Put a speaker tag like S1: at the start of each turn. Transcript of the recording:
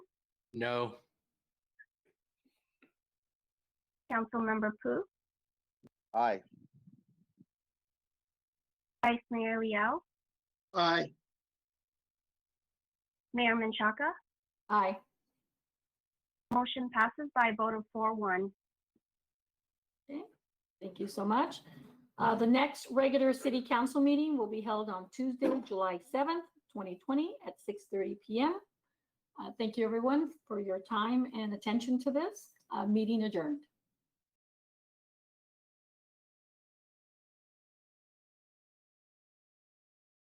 S1: No.
S2: Councilmember Pu,
S3: Aye.
S2: Vice Mayor Liao,
S3: Aye.
S2: Mayor Menchaca.
S4: Aye.
S2: Motion passes by a vote of four one.
S4: Thank you so much. Uh, The next regular city council meeting will be held on Tuesday, July 7th, 2020 at 6:30 PM. Uh, Thank you, everyone, for your time and attention to this. Uh, Meeting adjourned.